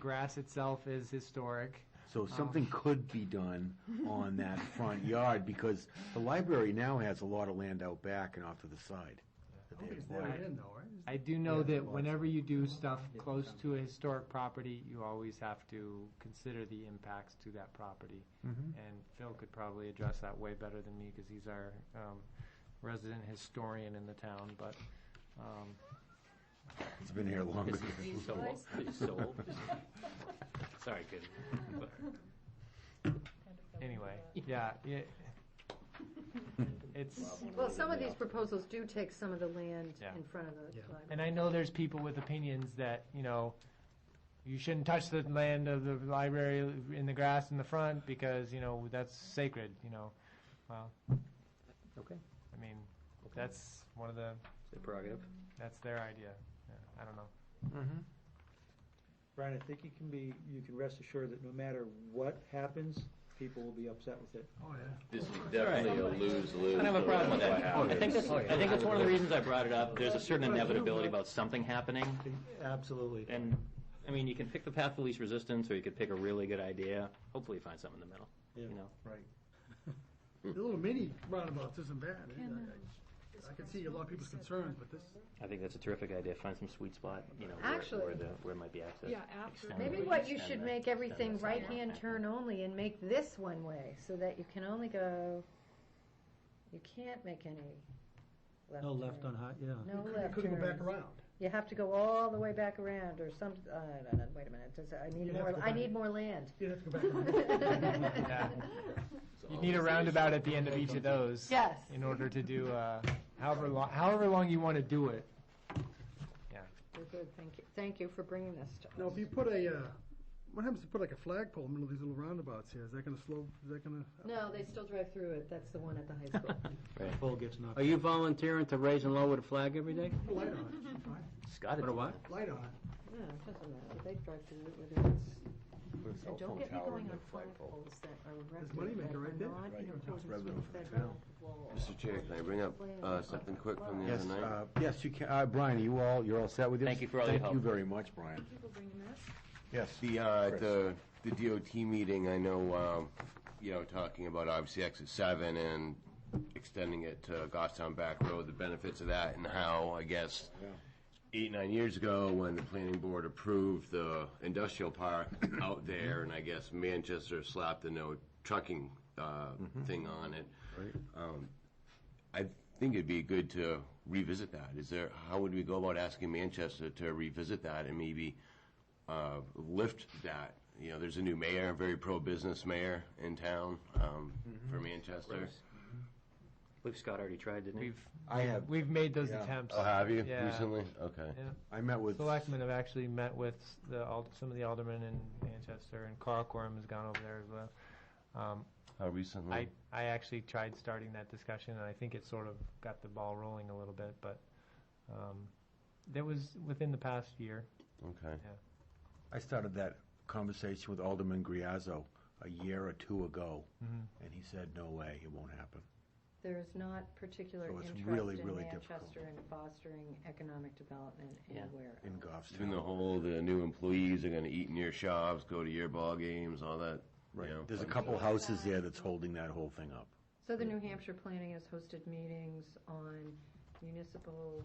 Grass itself is historic. Oh. So something could be done on that front yard, because the library now has a lot of land out back and off to the side. that they Nobody's acquired. let it in though, right? I do know Yeah, that lots. whenever you do stuff close to a historic property, you always have to consider the impacts to that property. Mhm. And Phil could probably address that way better than me, because he's our um, resident historian in the town, but, um, It's been here longer. Is than- he so old? He's so old. Sorry, kid. anyway, yeah, yeah. It's, Well, some of these proposals do take some of the land Yeah. in front of the Yeah. library. and I know there's people with opinions that, you know, you shouldn't touch the land of the library in the grass in the front, because, you know, that's sacred, you know, well, Okay, I mean, that's one of the it's a prerogative. That's their idea. Yeah, I don't know. Mhm. Brian, I think you can be, you can rest assured that no matter what happens, people will be upset with it. Oh, yeah. This is definitely a lose-lose. I don't have a problem with no matter that. what I think that's, happens. I think Oh, that's one of the reasons I brought it up. There's a certain inevitability about something happening. Absolutely. And, I mean, you can pick the path of least resistance, or you could pick a really good idea. Hopefully you find something in the middle, you know? Right. Hmm. The little mini roundabouts isn't bad. I- I I can see a lot of people's concerns, but this, I think that's a terrific idea. Find some sweet spot, you know, where, Actually- where the, where it might be access. Yeah, after. Extend Maybe it, what you extend should that- make everything extend that sidewalk right-hand back. turn only and make this one-way, so that you can only go, you can't make any left no left on turn. high, yeah. No You left couldn't go back turns. around. You have to go all the way back around, or some, uh, no, no, wait a minute, does, I need You'd have to more, go I back. need more land. You'd have to go back around. You need a roundabout at the end of each of those. Yes. In order to do, uh, however long, however long you want to do it. We're good, thank you, thank you for bringing this to us. Now, if you put a, uh, what happens if you put like a flagpole in the middle of these little roundabouts here? Is that gonna slow, is that gonna? No, they still drive through it, that's the one at the high school. Pole gets knocked. Are you volunteering to raise and lower the flag every day? Put a light on it. Fine. Scott, Put a what? Light on it. No, it doesn't matter, they drive through it with it's Put a cell And phone don't get me tower going in on the flagpoles flagpole. that are There's erected moneymaker that right are there. not Right. in accordance Revenue with for the federal law. Mr. Chair, can I bring up uh, something quick from the other Yes, night? uh, yes, you can, uh, Brian, are you all, you're all set with this? Thank you for all your Thank you help. very much, Brian. People bringing this? Yes. The, uh, Chris. the, the DOT meeting, I know, um, you know, talking about obviously exit seven and extending it to Goffstown Back Road, the benefits of that and how, I guess, eight, nine years ago, when the planning board approved the industrial park out there, and I guess Manchester slapped the no trucking, uh, thing on it. Right. Um, I think it'd be good to revisit that. Is there, how would we go about asking Manchester to revisit that and maybe uh, lift that. You know, there's a new mayor, a very pro-business mayor in town um, for I Manchester. believe Scott already tried, didn't he? We've, I have, we've made those Yeah. attempts. Oh, have you Yeah. recently? Okay. Yeah. I met with, Selectmen have actually met with the, ald- some of the aldermen in Manchester, and Carl Quorum has gone over there as well. Um, How recently? I, I actually tried starting that discussion, and I think it sort of got the ball rolling a little bit, but, um, that was within the past year. okay. I started that conversation with Alderman Griazzo a year or two ago, Mm-hmm. and he said, no way, it won't happen. There is not particular So it's interest really, in really difficult. Manchester in fostering economic development Yeah. anywhere. In else. Goffstown. Even the whole, the new employees are going to eat in your shops, go to your ball games, all that. Right. You know, There's a fun couple stuff. houses there that's holding that whole thing up. So the New Hampshire Planning has hosted meetings on municipal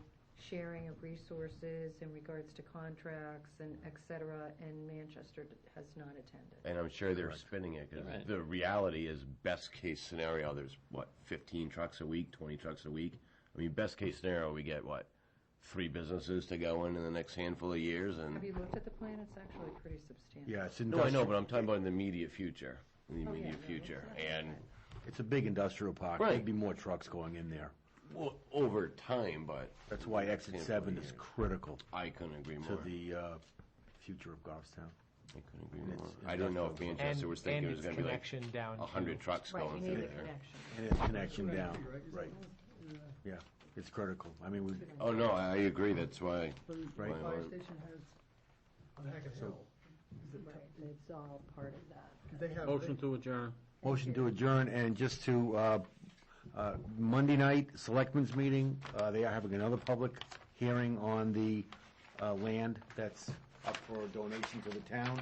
sharing of resources in regards to contracts and et cetera, and Manchester has not attended. And I'm sure they're spinning it because the reality is best case scenario. There's what 15 trucks a week, 20 trucks a week. I mean, best case scenario, we get what three businesses to go in in the next handful of years, and Mm. Have you looked at the plan? It's actually pretty substantial. Yeah, it's No, I know, industrial, but I'm talking about in the immediate future, in the Oh, yeah, immediate no, future, and, it's a big industrial park. Right. There'd be more trucks going in there. well, over time, but That's why exit Can't seven believe is it. critical I couldn't agree to more. the uh, future of Goffstown. I couldn't agree more. it's I don't know if industrial. Manchester was thinking it was gonna be like connection down a hundred trucks Right, you going need through the there. connection. And its connection Right, down, right, is it right, Yeah. yeah, it's critical. I mean, we, Oh, no, I I agree, that's why, But the Right. Fire station has, on Hackett Hill, is it- Right, it's all part of that. they have. Motion to adjourn. motion to adjourn, and just to, uh, uh, Monday night, selectmen's meeting, uh, they are having another public hearing on the uh, land that's up for donation to the town.